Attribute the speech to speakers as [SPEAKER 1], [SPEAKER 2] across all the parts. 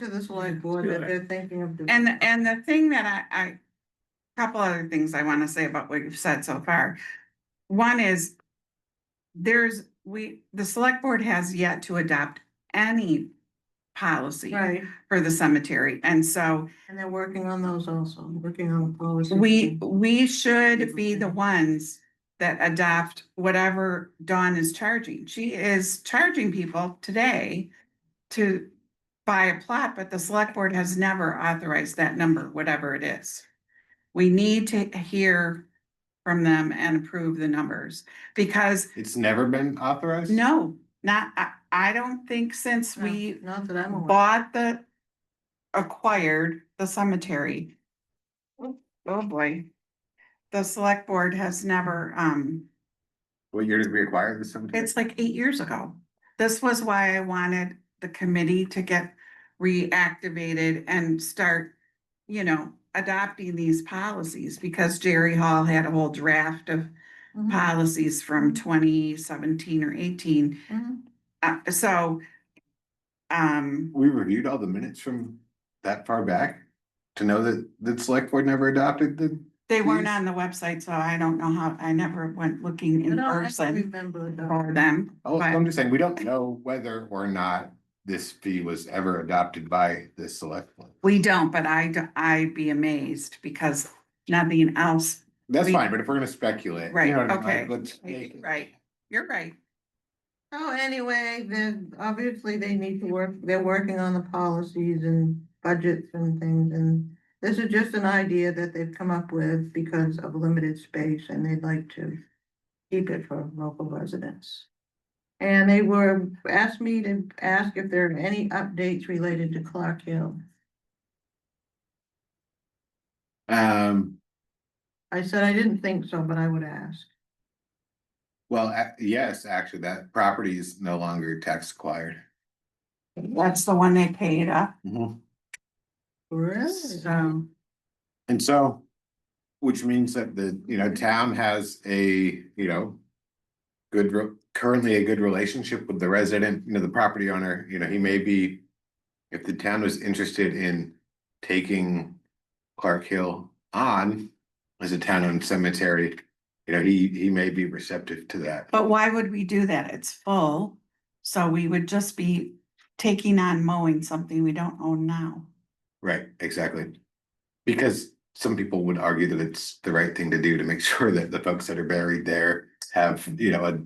[SPEAKER 1] to the select board that they're thinking of. doing.
[SPEAKER 2] And, and the thing that I, I, couple other things I wanna say about what you've said so far. One is, there's, we, the select board has yet to adopt any policy
[SPEAKER 1] Right,
[SPEAKER 2] for the cemetery, and so
[SPEAKER 1] and they're working on those also, working on policy.
[SPEAKER 2] we, we should be the ones that adopt whatever Dawn is charging. She is charging people today to buy a plot, but the select board has never authorized that number, whatever it is. We need to hear from them and approve the numbers, because
[SPEAKER 3] It's never been authorized?
[SPEAKER 2] no, not, I, I don't think since
[SPEAKER 1] No,
[SPEAKER 2] we
[SPEAKER 1] Not that I'm aware.
[SPEAKER 2] bought the, acquired the cemetery. Oh, boy. The select board has never, um,
[SPEAKER 3] What year did we acquire this cemetery?
[SPEAKER 2] it's like eight years ago. This was why I wanted the committee to get reactivated and start, you know, adopting these policies because Jerry Hall had a whole draft of Mm.
[SPEAKER 1] Mhm,
[SPEAKER 2] policies from twenty seventeen or eighteen.
[SPEAKER 1] mhm.
[SPEAKER 2] Uh, so, um,
[SPEAKER 3] We reviewed all the minutes from that far back to know that the select board never adopted the,
[SPEAKER 2] They weren't
[SPEAKER 3] Yes.
[SPEAKER 2] on the website, so I don't know how, I never went looking
[SPEAKER 1] I
[SPEAKER 2] in
[SPEAKER 1] don't- I don't
[SPEAKER 2] person
[SPEAKER 1] Remember it though.
[SPEAKER 2] for them,
[SPEAKER 3] oh,
[SPEAKER 2] but
[SPEAKER 3] I'm just saying, we don't know whether or not this fee was ever adopted by the select. board.
[SPEAKER 2] we don't, but I, d- I'd be amazed because nothing else,
[SPEAKER 3] That's
[SPEAKER 2] We-
[SPEAKER 3] fine, but if we're gonna speculate,
[SPEAKER 2] Right,
[SPEAKER 3] you know what I mean?
[SPEAKER 2] okay.
[SPEAKER 3] Like, let's make it-
[SPEAKER 2] right, you're right.
[SPEAKER 1] So Oh, anyway, then obviously they need to work, they're working on the policies and budgets and things and. This is just an idea that they've come up with because of limited space and they'd like to keep it for local residents. And they were, asked me to ask if there are any updates related to Clark Hill.
[SPEAKER 3] Um,
[SPEAKER 1] I said I didn't think so, but I would ask.
[SPEAKER 3] well, a- yes, actually, that property is no longer tax acquired.
[SPEAKER 2] That's the one they paid up, so,
[SPEAKER 3] And so, which means that the, you know, town has a, you know. Good, re- currently a good relationship with the resident, you know, the property owner, you know, he may be. If the town was interested in taking Clark Hill on as a town owned cemetery. You know, he, he may be receptive to that.
[SPEAKER 2] but why would we do that? It's full. So we would just be taking on mowing something we don't own now.
[SPEAKER 3] Right, exactly. Because some people would argue that it's the right thing to do to make sure that the folks that are buried there have, you know, a.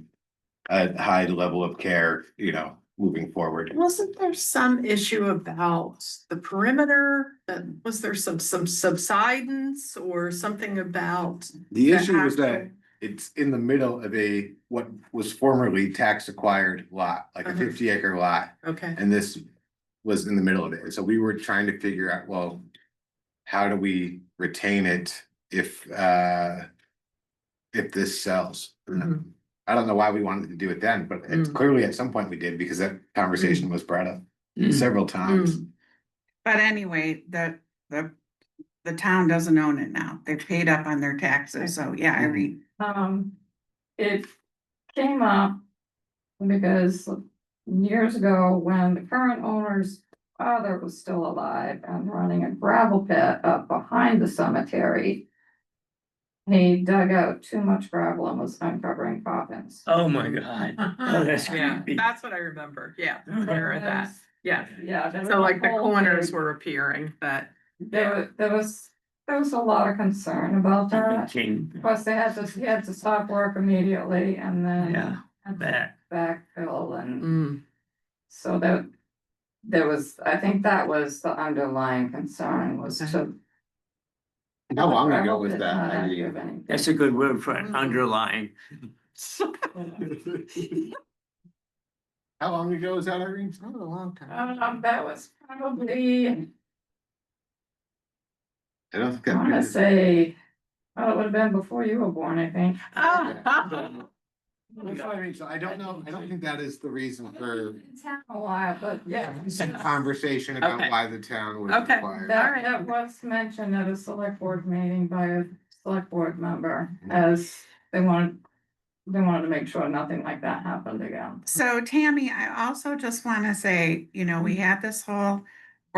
[SPEAKER 3] A high level of care, you know, moving forward.
[SPEAKER 4] Wasn't there some issue about the perimeter? That, was there some, some subsidence or something about?
[SPEAKER 3] The
[SPEAKER 4] the
[SPEAKER 3] issue is that
[SPEAKER 4] actual-
[SPEAKER 3] it's in the middle of a, what was formerly tax acquired lot, like a
[SPEAKER 4] Uh-huh.
[SPEAKER 3] fifty acre lot.
[SPEAKER 4] Okay,
[SPEAKER 3] And this was in the middle of it, so we were trying to figure out, well, how do we retain it if uh. If this sells?
[SPEAKER 4] Mhm.
[SPEAKER 3] I don't know why we wanted to do it then, but it's
[SPEAKER 4] Mm.
[SPEAKER 3] clearly at some point we did because that conversation was brought up several times.
[SPEAKER 4] Hmm.
[SPEAKER 2] But anyway, the, the, the town doesn't own it now. They paid up on their taxes, so yeah,
[SPEAKER 1] Mm.
[SPEAKER 2] I read.
[SPEAKER 5] Um, it came up because years ago, when the current owner's father was still alive and running a gravel pit up behind the cemetery. He dug out too much gravel and was uncovering coffins.
[SPEAKER 6] Oh my god. Oh, that's
[SPEAKER 4] Yeah,
[SPEAKER 6] creepy.
[SPEAKER 4] that's what I remember, yeah, there at that, yeah.
[SPEAKER 5] Yeah. there was
[SPEAKER 4] So
[SPEAKER 5] a
[SPEAKER 4] like the
[SPEAKER 5] whole
[SPEAKER 4] corners
[SPEAKER 5] big-
[SPEAKER 4] were appearing, but.
[SPEAKER 5] There was, there was, there was a lot of concern about that.
[SPEAKER 6] King,
[SPEAKER 5] Plus, they had to, he had to stop work immediately and then.
[SPEAKER 6] yeah,
[SPEAKER 5] had to
[SPEAKER 6] that,
[SPEAKER 5] Backfill and.
[SPEAKER 4] mm,
[SPEAKER 5] So that, there was, I think that was the underlying concern was to.
[SPEAKER 3] How long ago
[SPEAKER 5] Gravel
[SPEAKER 3] was
[SPEAKER 5] did
[SPEAKER 3] that?
[SPEAKER 5] not
[SPEAKER 3] idea?
[SPEAKER 5] active anything.
[SPEAKER 6] that's a good word for an
[SPEAKER 1] Mhm.
[SPEAKER 6] underline.
[SPEAKER 3] How long ago was that, Irene?
[SPEAKER 1] That was a long time.
[SPEAKER 5] Um, that was probably,
[SPEAKER 3] I don't think
[SPEAKER 5] I wanna
[SPEAKER 3] that.
[SPEAKER 5] say, oh, it would have been before you were born, I think.
[SPEAKER 4] ah,
[SPEAKER 3] That's what I mean, so I don't know, I don't think that is the reason for
[SPEAKER 5] It's happened a while, but yeah.
[SPEAKER 3] conversation about
[SPEAKER 4] Okay.
[SPEAKER 3] why the town was
[SPEAKER 4] Okay.
[SPEAKER 3] acquired.
[SPEAKER 5] That, that was mentioned at a select board meeting by a select board member
[SPEAKER 3] Mhm.
[SPEAKER 5] as they wanted, they wanted to make sure nothing like that happened again.
[SPEAKER 2] So Tammy, I also just want to say, you know, we had this whole